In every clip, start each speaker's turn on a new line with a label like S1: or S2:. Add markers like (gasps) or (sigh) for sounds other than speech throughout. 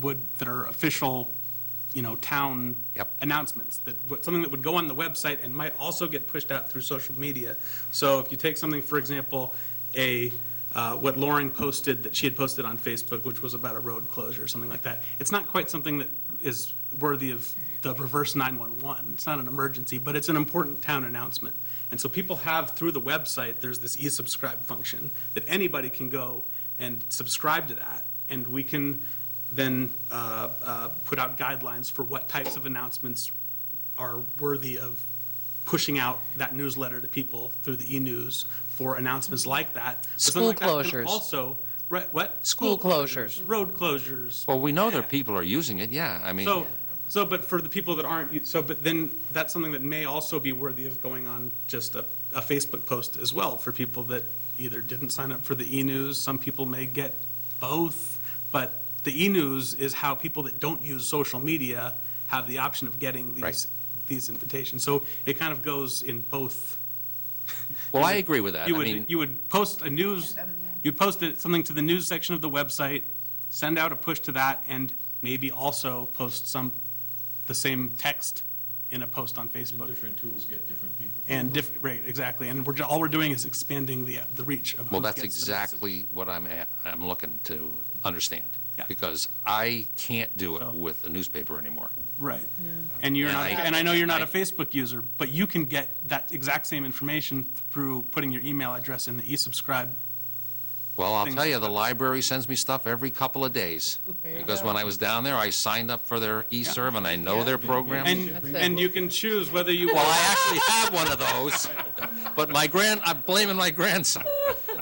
S1: would, that are official, you know, town
S2: Yep.
S1: announcements, that, what- something that would go on the website and might also get pushed out through social media. So if you take something, for example, a, uh, what Lauren posted, that she had posted on Facebook, which was about a road closure, or something like that, it's not quite something that is worthy of the reverse 911. It's not an emergency, but it's an important town announcement. And so people have, through the website, there's this e-subscribe function that anybody can go and subscribe to that. And we can then uh, uh, put out guidelines for what types of announcements are worthy of pushing out that newsletter to people through the e-news for announcements like that. But something
S3: School
S1: like that can
S3: closures.
S1: Also, right, what?
S3: School
S1: Road closures.
S2: Well, we know
S1: Yeah.
S2: that people are using it, yeah, I mean,
S1: So, so, but for the people that aren't, so, but then that's something that may also be worthy of going on just a, a Facebook post as well for people that either didn't sign up for the e-news, some people may get both, but the e-news is how people that don't use social media have the option of getting these,
S2: Right.
S1: these invitations. So it kind of goes in both.
S2: well, I agree with that. I
S1: You would,
S2: mean,
S1: you would post a news,
S4: Them, yeah.
S1: you'd post it- something to the news section of the website, send out a push to that, and maybe also post some, the same text in a post on
S5: And
S1: Facebook.
S5: different tools get different people.
S1: And diff, right, exactly. And we're, ju- all we're doing is expanding the, the reach of.
S2: well,
S1: who
S2: that's
S1: gets the message.
S2: exactly what I'm, a- I'm looking to understand.
S1: Yeah.
S2: Because I can't do
S1: So-
S2: it with the newspaper anymore.
S1: Right. And you're
S2: And
S1: not,
S2: I-
S1: and I know you're not a
S2: I-
S1: Facebook user, but you can get that exact same information through putting your email address in the e-subscribe.
S2: Well, I'll
S1: Things-
S2: tell you, the library sends me stuff every couple of days. Because when I was down there, I signed up for their e-serve and I know their program.
S1: And, and you can choose whether you.
S2: Well, I actually have one of those, but my grand, I'm blaming my grandson.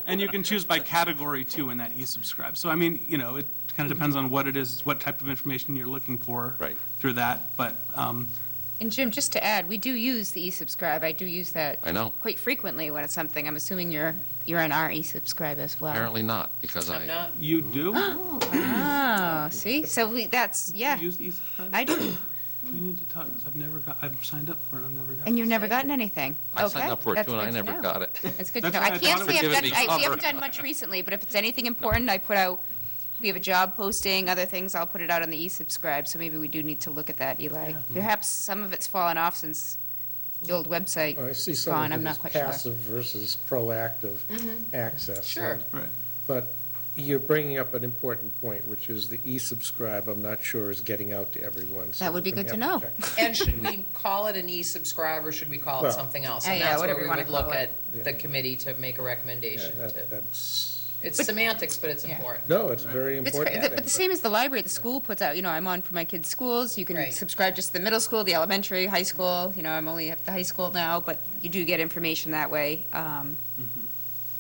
S1: And you can choose by category too in that e-subscribe. So I mean, you know, it kind of depends on what it is, what type of information you're looking for.
S2: Right.
S1: Through that, but, um,
S4: And Jim, just to add, we do use the e-subscribe. I do use that.
S2: I know.
S4: Quite frequently when it's something. I'm assuming you're, you're on our e-subscribe as well.
S2: Apparently not, because I,
S1: you do
S4: Oh, see? So we, that's, (gasps) yeah.
S1: use the e-subscribe?
S4: I do.
S1: We need to talk, 'cause I've never got, I've signed up for it, I've never got.
S4: And you've never gotten anything?
S2: I signed
S4: Okay,
S2: up for it
S4: that's
S2: too and I
S4: good to
S2: never
S4: know.
S2: got it.
S4: That's good to
S1: That's
S4: know.
S1: why
S4: I
S1: I
S4: can't
S1: thought
S4: say
S2: it
S4: I've
S2: was
S4: done,
S2: giving me
S4: I, we haven't
S2: cover.
S4: done much recently, but if it's anything important, I put out, we have a job posting, other things, I'll put it out on the e-subscribe, so maybe we do need to look at that, Eli. Perhaps some of it's fallen off since the old website
S6: I see
S4: is
S6: some
S4: gone,
S6: of
S4: I'm
S6: it as
S4: not quite sure. Mm-hmm.
S6: passive versus proactive access.
S7: Sure.
S1: Right.
S6: But you're bringing up an important point, which is the e-subscribe, I'm not sure is getting out to everyone. so
S4: That would
S6: we're
S4: be
S6: gonna
S4: good to
S6: have
S4: know.
S6: check.
S7: And should we call it an e-subscribe, or should we call it
S6: Well-
S7: something else?
S4: Yeah,
S7: And
S4: Oh, yeah,
S7: that's where
S4: whatever
S7: we
S4: you wanna
S7: would look
S4: call it.
S7: at the committee to make a
S6: Yeah,
S7: recommendation
S6: that-
S7: to.
S6: That's,
S7: It's semantics, but it's
S4: Yeah.
S7: important.
S6: no, it's very
S4: It's cra-
S6: important.
S4: the- (laughs) But the same as the library, the school puts out, you know, I'm on for my kids' schools, you can
S7: Right.
S4: subscribe just to the middle school, the elementary, high school, you know, I'm only at the high school now, but you do get information that way. um,
S1: Mm-hmm.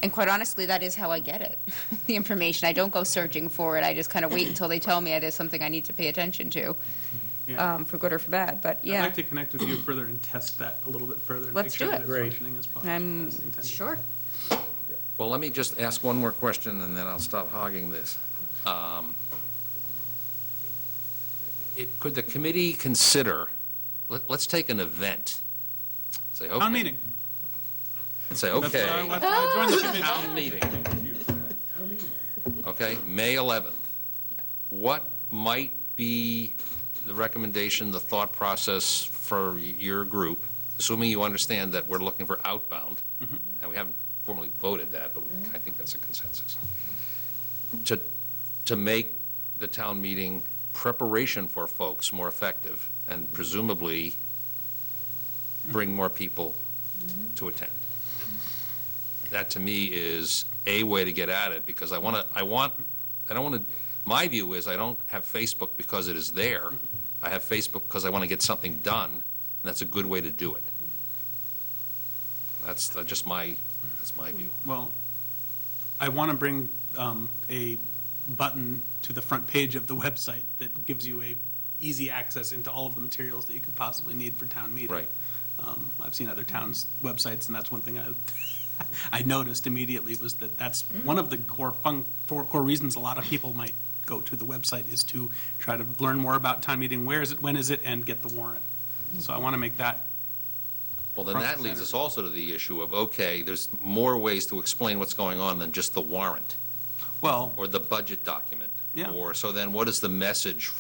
S4: And quite honestly, that is how I get it, (laughs) the information, I don't go searching for it, I just kind of wait until they tell me there's something I need to pay attention to,
S1: Yeah.
S4: um, for good or for bad, but
S1: I'd
S4: yeah.
S1: like to connect with you further and test that a little bit further. and
S4: Let's
S1: make sure
S4: do
S1: that
S4: it.
S1: it's
S6: Great.
S1: Functioning as possible.
S4: I'm,
S1: as intended.
S4: sure,
S2: Well, let me just ask one more question, and then I'll stop hogging this. Um, it- Could the committee consider, let- let's take an event, say, okay.
S1: Town meeting.
S2: And say,
S1: That's what I-
S2: okay,
S1: that's why I joined
S4: (laughs)
S1: the committee.
S2: town meeting, okay, May 11th. What might be the recommendation, the thought process for your group, assuming you understand that we're looking for outbound, and we haven't formally voted that, but I think that's a consensus, to, to make the town meeting preparation for folks more effective and presumably bring more people to attend. That to me is a way to get at it because I want to, I want, I don't want to, my view is I don't have Facebook because it is there. I have Facebook because I want to get something done, and that's a good way to do it. That's that's just my, that's my view.
S1: Well, I want to bring um, a button to the front page of the (laughs) website that gives you a easy access into all of the materials that you could possibly need for town meeting.
S2: Right.
S1: Um, I've seen other towns' websites, and that's one thing I, (laughs) I noticed immediately was that that's one of the core fun, four core reasons a lot of people might go to the website is to try to learn more about town meeting, where is it, when is it, and get the warrant. So I want to make that,
S2: Well, then
S1: Front
S2: that
S1: and
S2: leads
S1: center.
S2: us also to the issue of, okay, there's more ways to explain what's going on than just the warrant
S1: well,
S2: or the budget document
S1: Yeah.
S2: Or, so then what is the message